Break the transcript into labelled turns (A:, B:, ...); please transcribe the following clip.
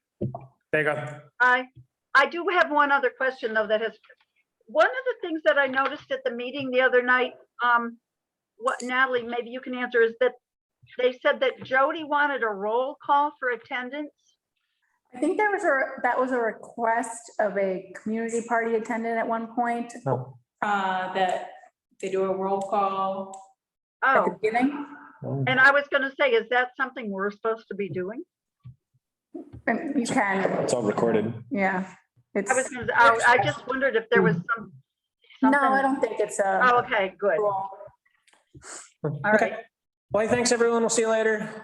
A: There you go.
B: I, I do have one other question though that has, one of the things that I noticed at the meeting the other night, um, what Natalie, maybe you can answer is that they said that Jody wanted a roll call for attendance.
C: I think there was a, that was a request of a community party attendant at one point,
A: No.
C: uh, that they do a roll call at the
B: Oh,
C: beginning.
A: no.
B: and I was gonna say, is that something we're supposed to be doing?
C: And you can,
A: It's all recorded.
C: yeah. It's,
B: I was, gonna I, I just wondered if there was some.
C: no,
B: something-
C: I don't think it's
B: Oh,
C: a.
B: okay, good. All
C: rule.
B: right.
A: Well, thanks, everyone. We'll see you later.